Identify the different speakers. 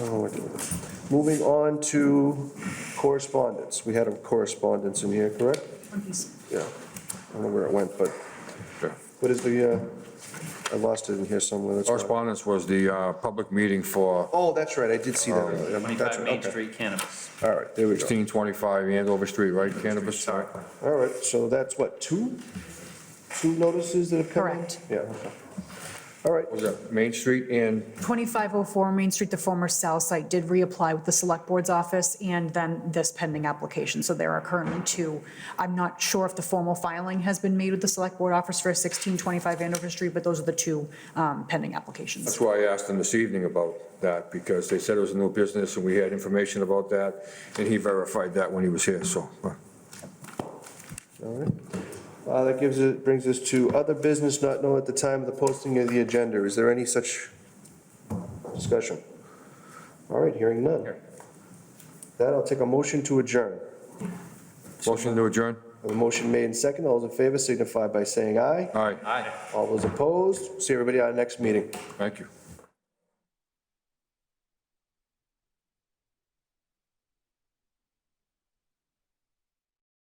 Speaker 1: Oh, we're doing it. Moving on to correspondence. We had a correspondence in here, correct? Yeah. I don't know where it went, but
Speaker 2: Sure.
Speaker 1: what is the, uh, I lost it in here somewhere. that's why.
Speaker 2: Correspondence was the uh, public meeting for
Speaker 1: Oh, that's right, I did see that. earlier. That's
Speaker 3: 25
Speaker 1: right,
Speaker 3: Main
Speaker 1: okay.
Speaker 3: Street cannabis.
Speaker 1: All right, there we go.
Speaker 2: 1625 Andover Street, right, cannabis? Sorry.
Speaker 1: All right, so that's what, two? Two notices that have come in?
Speaker 4: Correct.
Speaker 1: Yeah. okay. All right,
Speaker 2: Was that Main Street and
Speaker 4: 2504 Main Street, the former cell site, did reapply with the Select Board's office and then this pending application. So there are currently two. I'm not sure if the formal filing has been made with the Select Board Office for 1625 Andover Street, but those are the two um, pending applications.
Speaker 2: That's why I asked him this evening about that, because they said it was a new business, and we had information about that, and he verified that when he was here, so. uh,
Speaker 1: all right. Uh, That gives it, brings us to other business not known at the time of the posting of the agenda. Is there any such discussion? All right, hearing none. That, I'll take a motion to adjourn.
Speaker 2: Motion to adjourn?
Speaker 1: A motion made and second. All those in favor signify by saying aye.
Speaker 2: All right,
Speaker 3: Aye.
Speaker 1: All those opposed, see everybody at our next meeting.
Speaker 2: thank you.